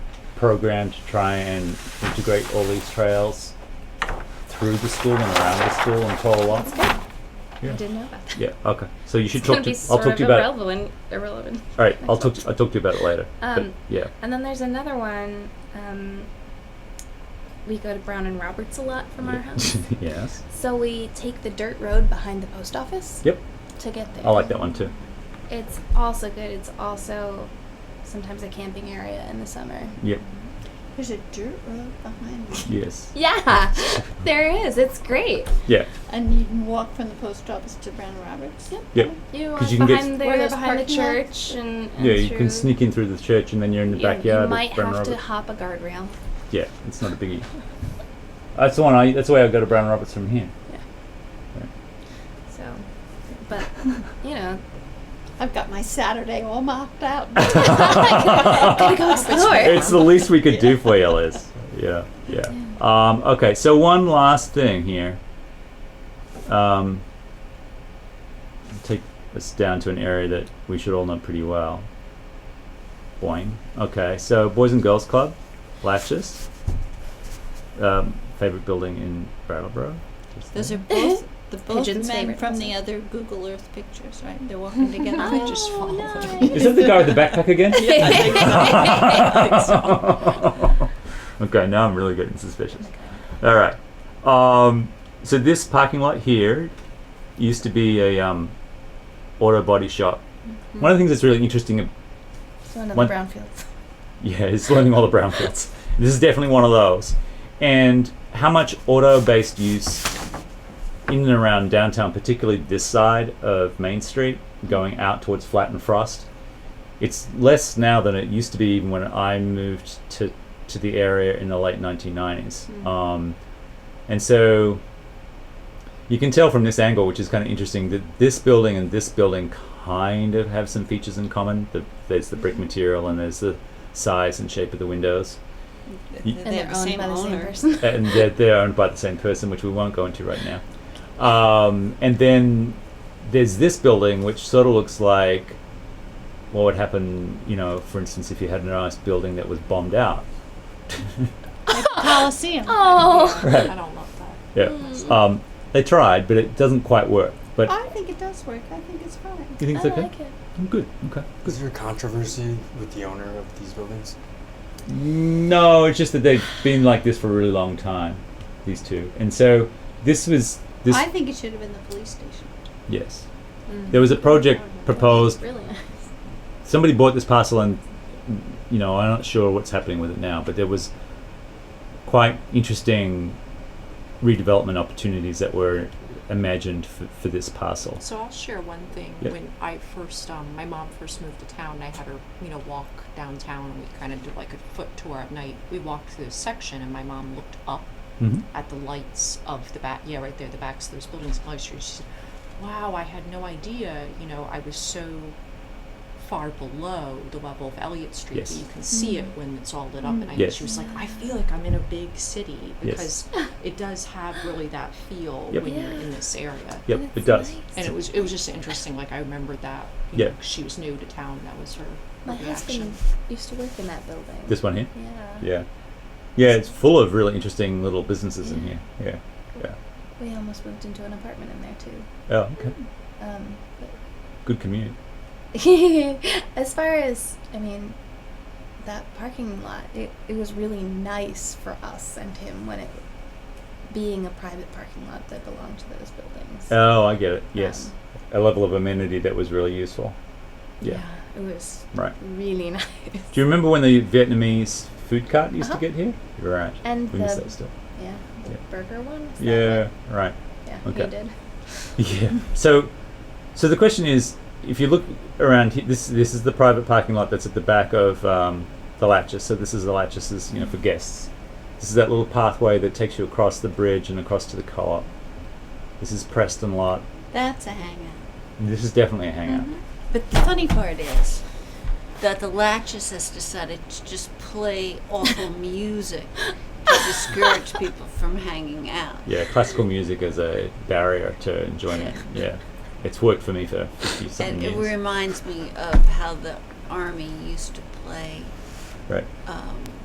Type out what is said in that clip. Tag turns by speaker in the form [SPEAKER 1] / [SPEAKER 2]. [SPEAKER 1] program to try and integrate all these trails through the school and around the school and
[SPEAKER 2] That's
[SPEAKER 1] Toloa.
[SPEAKER 2] good.
[SPEAKER 1] Yeah.
[SPEAKER 2] I didn't know about that.
[SPEAKER 1] Yeah, okay. So you should
[SPEAKER 2] It's gonna
[SPEAKER 1] talk
[SPEAKER 2] be
[SPEAKER 1] to, I'll
[SPEAKER 2] sort
[SPEAKER 1] talk
[SPEAKER 2] of
[SPEAKER 1] to you about it.
[SPEAKER 2] irrelevant. Irrelevant.
[SPEAKER 1] All right, I'll
[SPEAKER 2] next
[SPEAKER 1] talk, to- I'll talk to you about it later. But,
[SPEAKER 2] Um,
[SPEAKER 1] Yeah,
[SPEAKER 2] And then there's another one. Um, we go to Brown and Roberts a lot from our house.
[SPEAKER 1] yes,
[SPEAKER 2] So we take the dirt road behind the post office
[SPEAKER 1] yep,
[SPEAKER 2] to get there.
[SPEAKER 1] I like that one too.
[SPEAKER 2] It's also good. It's also sometimes a camping area in the summer.
[SPEAKER 1] Yep,
[SPEAKER 3] There's a dirt road behind me.
[SPEAKER 1] yes,
[SPEAKER 2] Yeah, there is. It's great.
[SPEAKER 1] yeah,
[SPEAKER 3] And you can walk from the post office to Brown Roberts.
[SPEAKER 2] Yep.
[SPEAKER 1] yep.
[SPEAKER 2] You are
[SPEAKER 1] 'Cause you can get-
[SPEAKER 2] behind
[SPEAKER 3] Where
[SPEAKER 2] there,
[SPEAKER 3] there's
[SPEAKER 2] behind the
[SPEAKER 3] parking lots.
[SPEAKER 2] church, and, and
[SPEAKER 1] Yeah, you
[SPEAKER 2] through-
[SPEAKER 1] can sneak in through the church and then you're in the
[SPEAKER 2] you-
[SPEAKER 1] backyard
[SPEAKER 2] You might
[SPEAKER 1] of Brown
[SPEAKER 2] have to
[SPEAKER 1] Roberts.
[SPEAKER 2] hop a guardrail.
[SPEAKER 1] Yeah, it's not a biggie. That's the one. I. That's the way I go to Brown Roberts from here.
[SPEAKER 2] So, but you know,
[SPEAKER 3] I've got my Saturday all marked out.
[SPEAKER 2] gotta go explore.
[SPEAKER 1] It's the least we could do for you, Liz. Yeah, yeah. Um, okay, so one last thing here. Um, take us down to an area that we should all know pretty well. Boing. Okay, so Boys and Girls Club, Latches. Um, favorite building in Brattleboro. Just
[SPEAKER 3] Those
[SPEAKER 1] there.
[SPEAKER 3] are both the both
[SPEAKER 2] Pigeon's
[SPEAKER 3] men
[SPEAKER 2] favorite
[SPEAKER 3] from the
[SPEAKER 2] picture.
[SPEAKER 3] other Google Earth pictures, right? They're walking together. They just
[SPEAKER 2] Oh,
[SPEAKER 3] fall.
[SPEAKER 2] nice.
[SPEAKER 1] Is that the guy with the backpack again? okay, now I'm really getting suspicious. All right. Um, so this parking lot here used to be a um, auto body shop. One of the things that's really interesting ab-
[SPEAKER 2] it's one of
[SPEAKER 1] One-
[SPEAKER 2] the brownfields.
[SPEAKER 1] yeah, it's learning all the brownfields. This is definitely one of those. And how much auto based use in and around downtown, particularly this side of Main Street, going out towards Flat and Frost, it's less now than it used to be even when I moved to, to the area in the late 1990s. Um, and so you can tell from this angle, which is kind of interesting, that this building and this building kind of have some features in common. The, there's the brick material and there's the size and shape of the windows.
[SPEAKER 3] They
[SPEAKER 2] And they're
[SPEAKER 3] have
[SPEAKER 2] owned by the same
[SPEAKER 3] owner.
[SPEAKER 2] person.
[SPEAKER 1] and they're, they're owned by the same person, which we won't go into right now. Um, and then there's this building, which sort of looks like what would happen, you know, for instance, if you had a nice building that was bombed out.
[SPEAKER 3] Coliseum.
[SPEAKER 2] Oh.
[SPEAKER 4] I don't love that.
[SPEAKER 1] Yeah.
[SPEAKER 2] Mm.
[SPEAKER 1] Um, they tried, but it doesn't quite work. But
[SPEAKER 3] I think it does work. I think it's fine.
[SPEAKER 1] you think it's
[SPEAKER 2] I
[SPEAKER 1] okay?
[SPEAKER 2] like it.
[SPEAKER 1] Mm, Good. Okay.
[SPEAKER 4] Is there controversy with the owner of these buildings?
[SPEAKER 1] No, it's just that they've been like this for a really long time, these two. And so this was this.
[SPEAKER 3] I think it should have been the police station.
[SPEAKER 1] yes.
[SPEAKER 2] Mm.
[SPEAKER 1] There was a
[SPEAKER 2] Oh,
[SPEAKER 1] project proposed
[SPEAKER 2] Really nice.
[SPEAKER 1] somebody bought this parcel and you know i'm not sure what's happening with it now but there was quite interesting redevelopment opportunities that were imagined for, for this parcel
[SPEAKER 4] So I'll share one thing.
[SPEAKER 1] Yeah.
[SPEAKER 4] When I first, um, my mom first moved to town, I had her, you know, walk downtown and we kind of did like a foot tour at night. We walked through this section and my mom looked up
[SPEAKER 1] mm-hmm.
[SPEAKER 4] at the lights of the back, yeah, right there, the backs of those buildings, Polly Street. She said, wow, I had no idea, you know, I was so far below the level of Elliott Street
[SPEAKER 1] Yes.
[SPEAKER 4] that you can see it when it's all lit up. And I,
[SPEAKER 1] Yes.
[SPEAKER 4] she was like, I feel like I'm in a big city
[SPEAKER 1] Yes.
[SPEAKER 4] because it does have really that feel
[SPEAKER 1] Yep.
[SPEAKER 4] when you're
[SPEAKER 2] Yeah.
[SPEAKER 4] in this area.
[SPEAKER 1] yep
[SPEAKER 2] That's
[SPEAKER 1] it does
[SPEAKER 2] nice.
[SPEAKER 4] And it was it was just interesting. Like I remembered that. you
[SPEAKER 1] Yeah.
[SPEAKER 4] know, 'cause she was new to town. That was her. her
[SPEAKER 2] My
[SPEAKER 4] reaction.
[SPEAKER 2] husband used to work in that building.
[SPEAKER 1] this one here
[SPEAKER 2] yeah.
[SPEAKER 1] yeah yeah it's full of really interesting little businesses in here yeah
[SPEAKER 2] We almost moved into an apartment in there too.
[SPEAKER 1] oh okay
[SPEAKER 2] Um,
[SPEAKER 1] good community
[SPEAKER 2] but as far as I mean, that parking lot, it, it was really nice for us and him when it being a private parking lot that belonged to those buildings.
[SPEAKER 1] oh i get it yes a
[SPEAKER 2] Um,
[SPEAKER 1] level of amenity that was really useful yeah.
[SPEAKER 2] it was
[SPEAKER 1] right
[SPEAKER 2] really nice.
[SPEAKER 1] do you remember when the vietnamese food cart used
[SPEAKER 2] Uh-huh.
[SPEAKER 1] to get here right
[SPEAKER 2] And
[SPEAKER 1] we
[SPEAKER 2] the
[SPEAKER 1] miss that still
[SPEAKER 2] yeah, the
[SPEAKER 1] Yeah.
[SPEAKER 2] burger one. Is that
[SPEAKER 1] yeah
[SPEAKER 2] what-
[SPEAKER 1] right
[SPEAKER 2] yeah,
[SPEAKER 1] Okay.
[SPEAKER 2] we did.
[SPEAKER 1] Yeah. So, so the question is, if you look around, he- this this is the private parking lot that's at the back of um, the Latches. So this is the Latches, you know, for guests. This is that little pathway that takes you across the bridge and across to the co-op. This is Preston Lot.
[SPEAKER 3] That's a hangout.
[SPEAKER 1] This is definitely a hangout.
[SPEAKER 3] But the funny part is that the Latches has decided to just play awful music to discourage people from hanging out.
[SPEAKER 1] Yeah, classical music is a barrier to enjoyment. Yeah, it's worked for me for fifty something
[SPEAKER 3] And it
[SPEAKER 1] years.
[SPEAKER 3] reminds me of how the Army used to play
[SPEAKER 1] Right.
[SPEAKER 3] um,